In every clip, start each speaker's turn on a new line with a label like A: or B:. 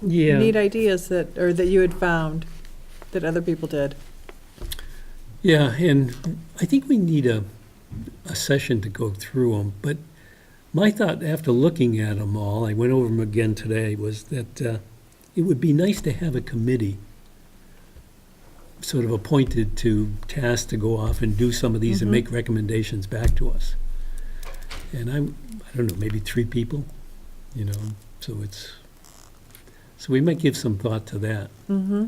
A: Yeah,
B: neat ideas that, or that you had found that other people did.
A: yeah, and I think we need a, a session to go through them, but my thought after looking at them all, I went over them again today, was that uh, it would be nice to have a committee sort of appointed to task to go off and do some of these and
B: Mhm.
A: make recommendations back to us. And I'm, I don't know, maybe three people, you know, so it's, so we might give some thought to that.
B: Mm-hmm.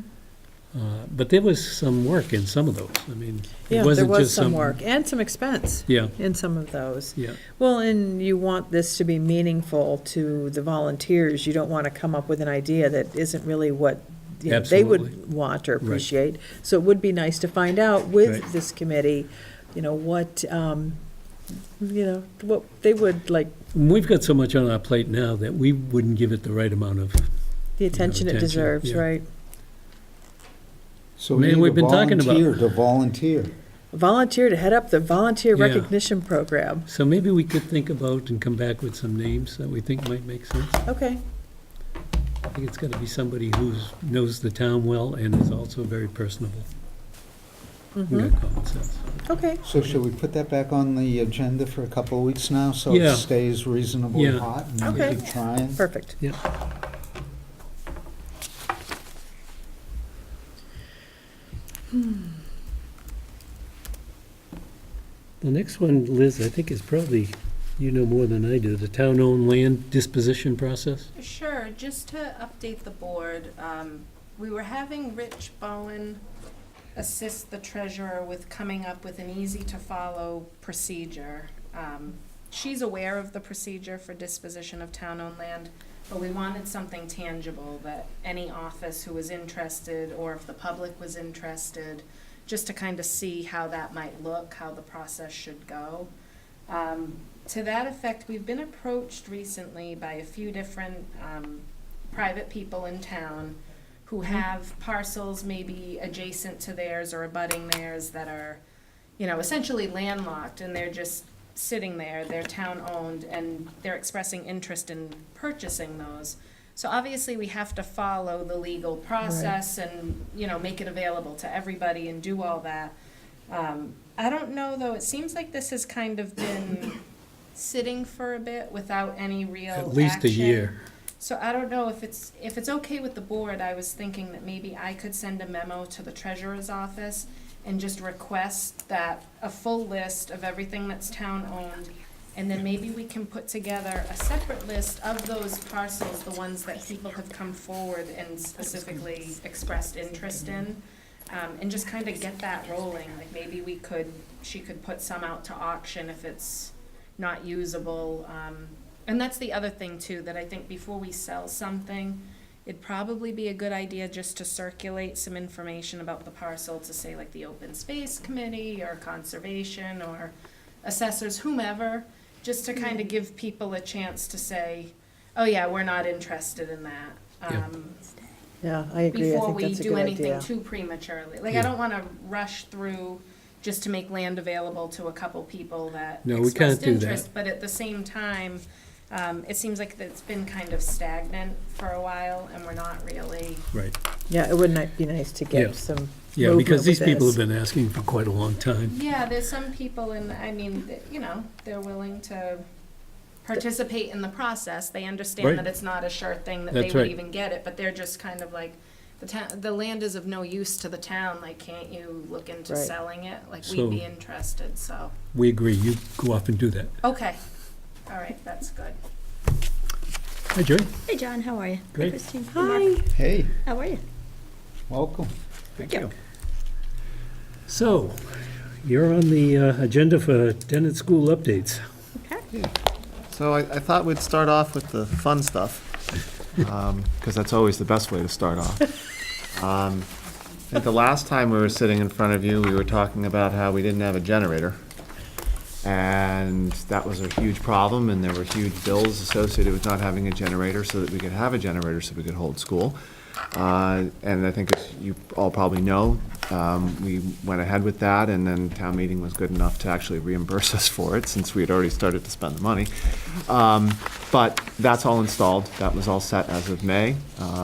A: Uh, But there was some work in some of those. I mean,
B: Yeah,
A: it
B: there
A: wasn't just some...
B: was some work and some expense
A: Yeah,
B: in some of those.
A: yeah,
B: Well, and you want this to be meaningful to the volunteers. You don't want to come up with an idea that isn't really what you know, they would
A: Absolutely.
B: want or appreciate. So it would be nice to find out with
A: Right.
B: this committee, you know, what, um, you know, what they would like,
A: And we've got so much on our plate now that we wouldn't give it the right amount of,
B: the attention it
A: attention,
B: deserves,
A: yeah.
B: right?
C: So we
A: Man,
C: need
A: we've
C: a
A: been talking about-
C: volunteer to volunteer.
B: Volunteer to head up the volunteer
A: Yeah.
B: recognition program.
A: so maybe we could think about and come back with some names that we think might make sense.
B: Okay,
A: I think it's got to be somebody who's, knows the town well and is also very personable.
B: mhm,
A: Got common sense.
B: okay.
C: So should we put that back on the agenda for a couple of weeks now, so
A: Yeah.
C: it stays reasonably
A: Yeah.
C: hot? and we
B: Okay.
C: keep trying?
B: Perfect.
A: Yeah. The next one, Liz, I think is probably, you know more than I do, the town-owned land disposition process?
D: Sure, just to update the board, um, we were having Rich Bowen assist the treasurer with coming up with an easy-to-follow procedure. Um, She's aware of the procedure for disposition of town-owned land, but we wanted something tangible that any office who was interested, or if the public was interested, just to kind of see how that might look, how the process should go. Um, to that effect, we've been approached recently by a few different um, private people in town who have parcels maybe adjacent to theirs or abutting theirs that are, you know, essentially landlocked and they're just sitting there, they're town owned, and they're expressing interest in purchasing those. So obviously, we have to follow the legal process and, you know, make it available to everybody and do all that. Um, I don't know, though, it seems like this has kind of been sitting for a bit without any
B: Oh,
D: real
A: At least a
D: action.
A: year.
D: So I don't know if it's, if it's okay with the board, I was thinking that maybe I could send a memo to the treasurer's office and just request that, a full list of everything that's town-owned, and then maybe we can put together a separate list of those parcels, the ones that people have come forward and specifically expressed interest in, um, and just kind of get that rolling, like maybe we could, she could put some out to auction if it's not usable, um, and that's the other thing too, that I think before we sell something, it'd probably be a good idea just to circulate some information about the parcel to say like the open space committee or conservation or assessors, whomever, just to kind of give people a chance to say, oh yeah, we're not interested in that.
A: Yeah.
D: Um,
B: Yeah, I agree. I
D: before
B: think
D: we
B: that's a
D: do
B: good
D: anything
B: idea.
D: too prematurely. Like,
A: Yeah.
D: I don't wanna rush through just to make land available to a couple people that
A: No, we can't
D: expressed
A: do that.
D: interest, but at the same time, um, it seems like it's been kind of stagnant for a while, and we're not really,
A: Right.
B: Yeah, it would not be nice to
A: Yeah.
B: get some
A: Yeah, because
B: movement
A: these
B: with
A: people have
B: this.
A: been asking for quite a long time.
D: yeah, there's some people in, I mean, that, you know, they're willing to participate in the process, they
A: Right.
D: understand that it's not a sure thing that they
A: That's
D: would
A: right.
D: even get it, but they're just kind of like, the town, the land is of no use to the town, like, can't you look into
B: Right.
D: selling it? Like,
A: So-
D: we'd be interested, so,
A: We agree, you go off and do that.
D: okay, all right, that's good.
A: Hi, Jerry.
E: Hey, John, how are you?
A: Great.
E: Christine. Hey, Mark.
B: Hi.
C: Hey,
E: How are you?
C: welcome.
A: Thank you. So, you're on the uh, agenda for tenant school updates.
E: Okay.
F: So I, I thought we'd start off with the fun stuff, because that's always the best way to start off. Um, I think the last time we were sitting in front of you, we were talking about how we didn't have a generator. And that was a huge problem, and there were huge bills associated with not having a generator so that we could have a generator so we could hold school. Uh, And I think, as you all probably know, um, we went ahead with that, and then town meeting was good enough to actually reimburse us for it, since we had already started to spend the money. Um, But that's all installed, that was all set as of May. Uh,